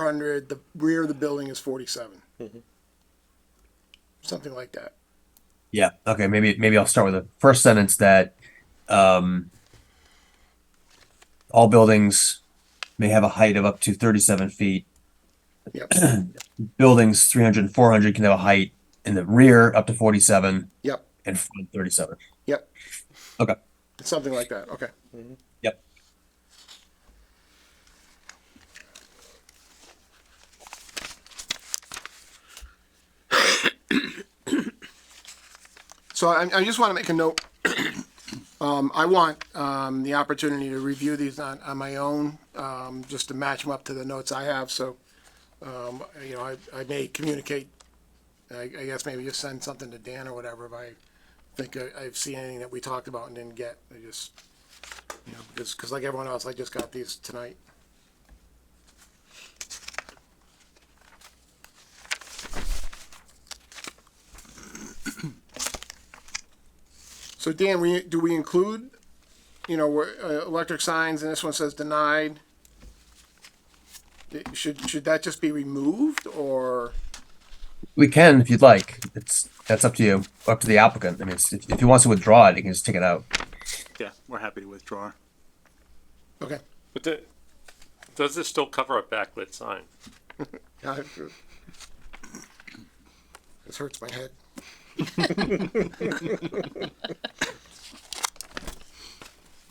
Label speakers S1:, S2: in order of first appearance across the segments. S1: 400, the rear of the building is 47. Something like that.
S2: Yeah. Okay. Maybe maybe I'll start with the first sentence that um, all buildings may have a height of up to 37 feet.
S1: Yep.
S2: Buildings 300 and 400 can have a height in the rear up to 47
S1: Yep.
S2: and front 37.
S1: Yep.
S2: Okay. Mm-hmm.
S1: Something like that. Okay.
S2: Yep.
S1: So I, I just want to make a note. Um, I want, um, the opportunity to review these on, on my own, um, just to match them up to the notes I have, so, um, you know, I, I may communicate, I, I guess maybe just send something to Dan or whatever if I think I, I've seen anything that we talked about and didn't get, I just, you know, because, because like everyone else, I just got these tonight. So Dan, we, do we include, you know, where, uh, electric signs and this one says denied? It- Should, should that just be removed or,
S2: We can if you'd like. It's that's up to you, up to the applicant. I mean, it's, if, if he wants to withdraw it, he can just take it out.
S3: Yeah, we're happy to withdraw.
S1: okay.
S4: But the, does this still cover a backlit sign?
S1: Yeah, I- This hurts my head.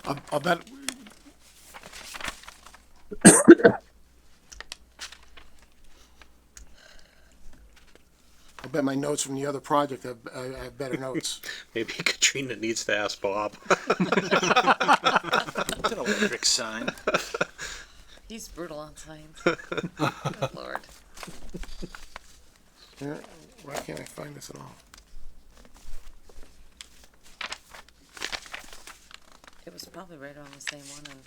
S1: I'll, I'll bet. I'll bet my notes from the other project have, I I have better notes.
S5: Maybe Katrina needs to ask Bob.
S3: It's an electric sign.
S6: He's brutal on signs. Good lord.
S1: Yeah, Why can't I find this at all?
S6: It was probably right around the same one and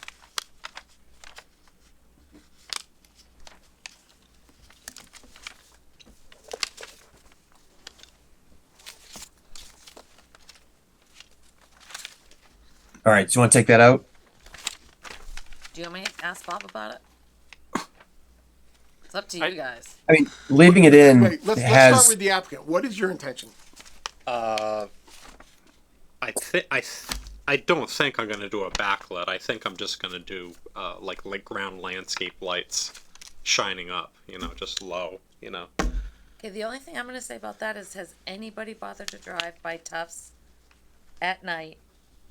S2: All right. So you want to take that out?
S6: do you want me to ask Bob about it? It's up to
S4: I-
S6: you guys.
S2: I mean, leaving it in
S1: Wait, let's, let's
S2: has
S1: start with the applicant. What is your intention?
S5: I think I, th- I don't think I'm gonna do a backlit. I think I'm just gonna do uh, like like ground landscape lights, shining up. You know, just low. You know.
S6: Okay, the only thing I'm gonna say about that is has anybody bothered to drive by Tufts at night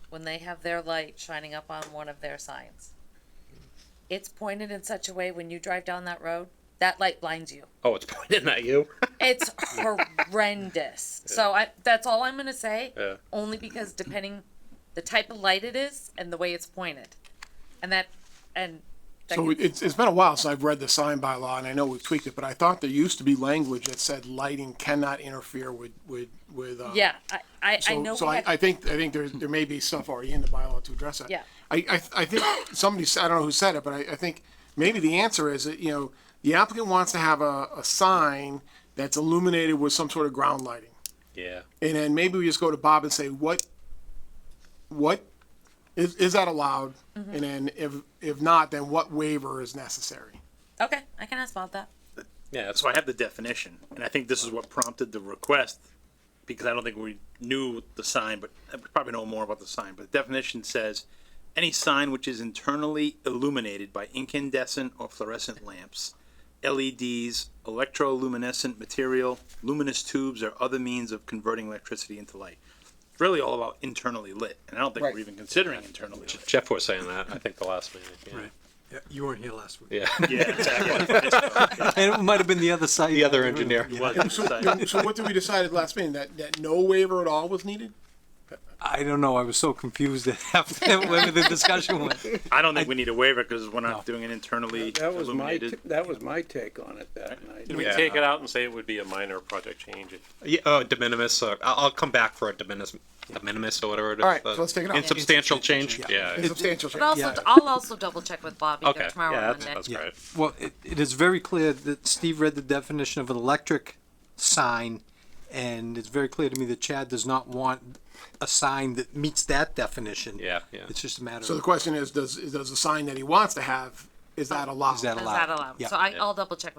S6: when they have their light shining up on one of their signs? It's pointed in such a way when you drive down that road, that light blinds you.
S5: Oh, it's pointing at you.
S6: It's horrendous. So I that's all I'm gonna say.
S5: Yeah.
S6: Only because depending the type of light it is and the way it's pointed. And that and that
S1: So
S6: could-
S1: it's, it's been a while since I've read the sign by law and I know we tweaked it, but I thought there used to be language that said lighting cannot interfere with, with, with, uh.
S6: yeah, I, I, I
S1: So,
S6: know
S1: so
S6: we
S1: I,
S6: had-
S1: I think, I think there, there may be stuff already in the bylaw to address that.
S6: Yeah.
S1: I, I, I think somebody, said- I don't know who said it, but I, I think maybe the answer is that, you know, the applicant wants to have a, a sign that's illuminated with some sort of ground lighting.
S5: Yeah.
S1: And then maybe we just go to Bob and say, what, what, is, is that allowed?
S6: Mm-hmm.
S1: And then if, if not, then what waiver is necessary?
S6: okay, I can ask about that.
S5: Yeah. That's
S3: So
S5: why.
S3: I have the definition, and I think this is what prompted the request, because I don't think we knew the sign, but we probably know more about the sign, but the definition says, any sign which is internally illuminated by incandescent or fluorescent lamps, LEDs, electroluminescent material, luminous tubes, or other means of converting electricity into light. It's really all about internally lit, and I don't think
S1: Right.
S3: we're even considering internally lit.
S5: Jeff was saying that. I think the last meeting. Yeah.
S7: Right. Yeah, you weren't here last week.
S5: Yeah.
S3: Yeah, exactly.
S7: And it might have been the other side.
S5: the other engineer.
S7: Yeah.
S3: Wasn't exciting.
S1: So what did we decide at last meeting? That, that no waiver at all was needed?
S7: I don't know. I was so confused at after where the discussion went.
S3: I don't think we need a waiver because we're not doing an internally
S8: That was my,
S3: illuminated.
S8: t- that was my take on it that night.
S4: Did we
S5: Yeah.
S4: take it out and say it would be a minor project change? if-
S5: Yeah. Oh, de minimis. Uh, I'll, I'll come back for a de minimis, de minimis or whatever. it is,
S1: All right, so
S5: uh,
S1: let's take it out.
S5: Insubstantial change. Yeah.
S1: It's substantial
S6: But also
S1: change.
S7: Yeah.
S6: I'll also double check with Bob either
S5: Okay.
S6: tomorrow
S5: yeah.
S6: or
S5: That's,
S6: Monday.
S5: that's
S7: Yeah.
S5: great.
S7: Well, it, it is very clear that Steve read the definition of an electric sign, and it's very clear to me that Chad does not want a sign that meets that definition.
S5: Yeah. Yeah.
S7: It's just a matter
S1: So the
S7: of
S1: question is, does, does the sign that he wants to have
S9: is that allowed?
S1: Is that
S6: Is
S1: allowed?
S6: that allowed?
S1: Yeah.
S6: So I, I'll double check